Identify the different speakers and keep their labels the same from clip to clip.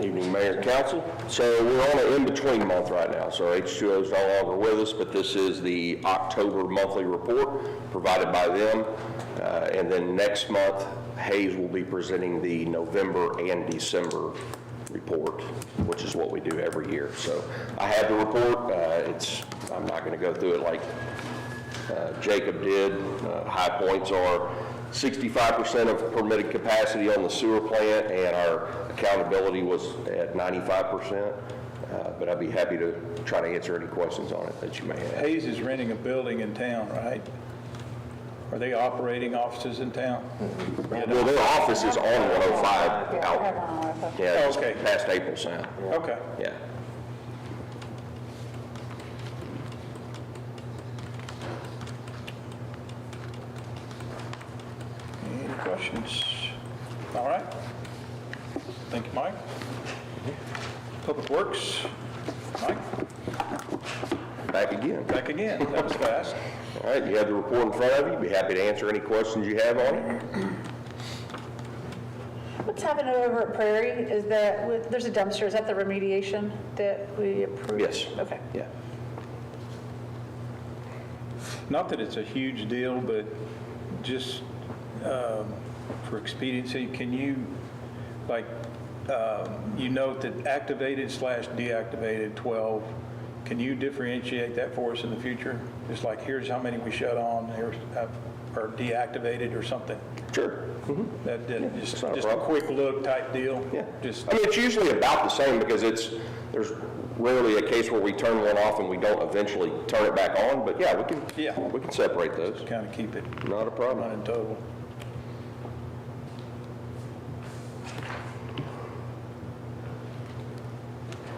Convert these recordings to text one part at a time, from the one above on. Speaker 1: Evening, Mayor and Council. So we're on an in-between month right now, so H2O is no longer with us, but this is the October monthly report provided by them. Uh, And then next month, Hayes will be presenting the November and December report, which is what we do every year. So I have the report. Uh, It's, I'm not going to go through it like uh, Jacob did. Uh, High points are 65% of permitted capacity on the sewer plant, and our accountability was at 95%. Uh, But I'd be happy to try to answer any questions on it that you may have.
Speaker 2: Hayes is renting a building in town, right? Are they operating offices in town?
Speaker 1: Well, their office is on 105 out,
Speaker 3: Out.
Speaker 1: yeah, just
Speaker 2: Okay.
Speaker 1: past April Sound,
Speaker 2: Okay.
Speaker 1: yeah.
Speaker 2: Any questions? All right. Thank you, Mike. Public Works, Mike,
Speaker 1: Back again.
Speaker 2: back again. That was fast.
Speaker 1: All right, you have the report in front of you. Be happy to answer any questions you have on it.
Speaker 3: What's happening over at Prairie is that, with- there's a dumpster, is that the remediation that we approved?
Speaker 1: Yes.
Speaker 3: Okay.
Speaker 1: Yeah.
Speaker 2: Not that it's a huge deal, but just um, for expediency, can you, like, um, you note that activated slash deactivated 12, can you differentiate that for us in the future? Just like, here's how many we shut on, here's, uh, or deactivated or something?
Speaker 1: Sure.
Speaker 2: That, that- just,
Speaker 1: not a
Speaker 2: just a
Speaker 1: problem.
Speaker 2: quick look type deal?
Speaker 1: Yeah.
Speaker 2: Just,
Speaker 1: I mean, it's usually about the same because it's, there's rarely a case where we turn one off and we don't eventually turn it back on, but yeah, we can,
Speaker 2: Yeah.
Speaker 1: we can separate those.
Speaker 2: kind of keep it
Speaker 1: Not a
Speaker 2: not
Speaker 1: problem.
Speaker 2: in total.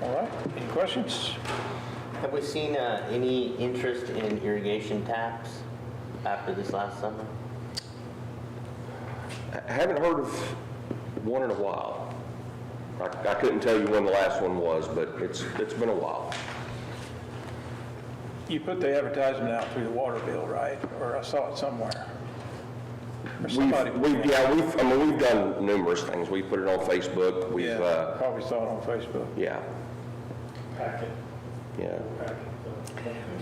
Speaker 2: All right, any questions?
Speaker 4: Have we seen uh, any interest in irrigation taps after this last summer?
Speaker 1: I Haven't heard of one in a while. I, I couldn't tell you when the last one was, but it's, it's been a while.
Speaker 2: You put the advertisement out through the water bill, right? Or I saw it somewhere. Or somebody-
Speaker 1: We've, we've, yeah, we've, I mean, we've done numerous things. We put it on Facebook, we've,
Speaker 2: Yeah,
Speaker 1: uh,
Speaker 2: probably saw it on Facebook.
Speaker 1: yeah, yeah.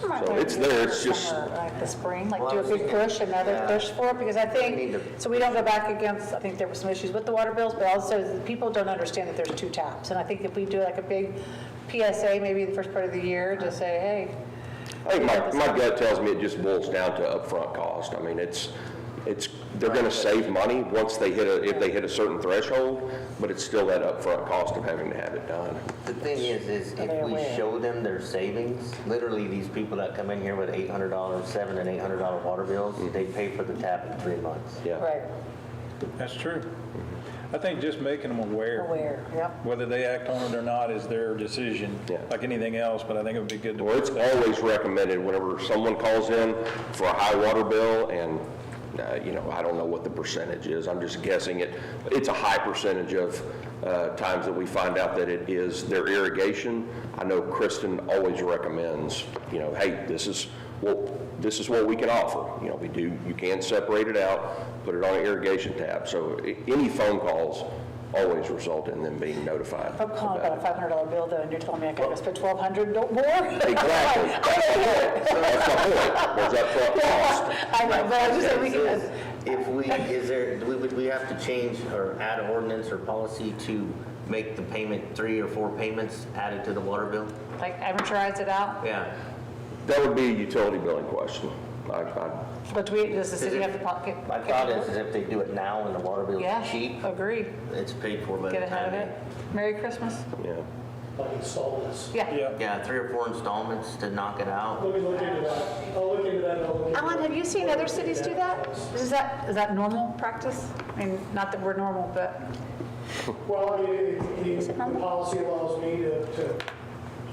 Speaker 3: You might
Speaker 1: So
Speaker 3: wanna
Speaker 1: it's
Speaker 3: do it
Speaker 1: there,
Speaker 3: this
Speaker 1: it's just-
Speaker 3: summer, Like the spring, like
Speaker 4: Well, I
Speaker 3: do a
Speaker 4: was
Speaker 3: big
Speaker 4: thinking-
Speaker 3: push, another
Speaker 4: yeah.
Speaker 3: push for it, because I
Speaker 4: need
Speaker 3: think,
Speaker 4: to-
Speaker 3: so we don't go back against, I think there were some issues with the water bills, but also the people don't understand that there's two taps. And I think if we do like a big PSA, maybe the first part of the year, to say, hey,
Speaker 1: I think my, my gut tells me it just boils down to upfront cost. I mean, it's, it's, they're gonna save money once they hit a, if they hit a certain threshold, but it's still that upfront cost of having to have it done.
Speaker 4: The thing is, is if we show them their savings, literally these people that come in here with eight hundred dollars, seven and eight hundred dollar water bills, they pay for the tap in three months.
Speaker 1: Yeah.
Speaker 3: right,
Speaker 2: That's true. I think just making them aware,
Speaker 3: aware, yep.
Speaker 2: whether they act on it or not is their decision,
Speaker 1: Yeah.
Speaker 2: like anything else, but I think it would be good to.
Speaker 1: Well, it's always recommended whenever someone calls in for a high water bill and, uh, you know, I don't know what the percentage is. I'm just guessing it. It's a high percentage of, uh, times that we find out that it is their irrigation. I know Kristen always recommends, you know, hey, this is what, this is what we can offer. You know, we do, you can separate it out, put it on an irrigation tab. So i- any phone calls always result in them being notified.
Speaker 3: I'm calling
Speaker 1: about it.
Speaker 3: about a $500 bill though, and you're telling me I gotta go spend 1,200 no- more?
Speaker 1: Exactly. That's the point. That's the point. There's upfront cost.
Speaker 3: I know, but Oh I just said we can,
Speaker 4: If we, is there, do we, would we have to change or add ordinance or policy to make the payment, three or four payments added to the water bill?
Speaker 3: like, amortize it out,
Speaker 4: Yeah.
Speaker 1: That would be a utility billing question. I, I,
Speaker 3: but do we, does the city have the pocket?
Speaker 4: My thought is, is if they do it now and the water bill's
Speaker 3: Yeah,
Speaker 4: cheap,
Speaker 3: agree.
Speaker 4: it's paid for by the time.
Speaker 3: Get ahead of
Speaker 4: they-
Speaker 3: it. Merry Christmas.
Speaker 1: yeah.
Speaker 5: like installments.
Speaker 3: Yeah.
Speaker 2: Yeah,
Speaker 4: Yeah, three or four installments to knock it out.
Speaker 5: Let me look into that. I'll look into that and I'll look into
Speaker 3: Alan,
Speaker 5: that.
Speaker 3: have you seen other cities do that? Is that, is that normal practice? I mean, not that we're normal, but,
Speaker 5: Well, I mean, it- it- the
Speaker 3: normal?
Speaker 5: policy allows me to, to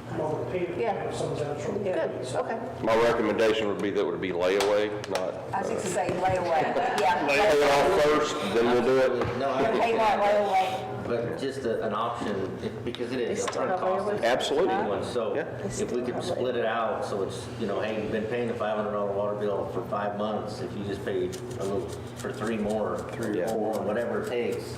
Speaker 5: come up with a payment
Speaker 3: Yeah.
Speaker 5: if someone's out of trouble.
Speaker 3: good, okay.
Speaker 1: My recommendation would be that it would be layaway, not,
Speaker 6: I was going to say layaway, but
Speaker 1: pay
Speaker 6: yeah.
Speaker 1: it off first, then we'll do it.
Speaker 4: No, I
Speaker 6: Pay
Speaker 4: understand.
Speaker 6: that layaway.
Speaker 4: But just a- an option, it- because it is
Speaker 3: They still
Speaker 4: upfront
Speaker 3: have
Speaker 4: cost.
Speaker 3: layaway.
Speaker 1: Absolutely.
Speaker 4: Anyone, So
Speaker 1: Yeah.
Speaker 4: if we could split it out, so it's, you know, hey, you've been paying a five hundred dollar water bill for five months, if you just pay a little, for three more, three
Speaker 1: Yeah.
Speaker 4: or four, whatever it takes,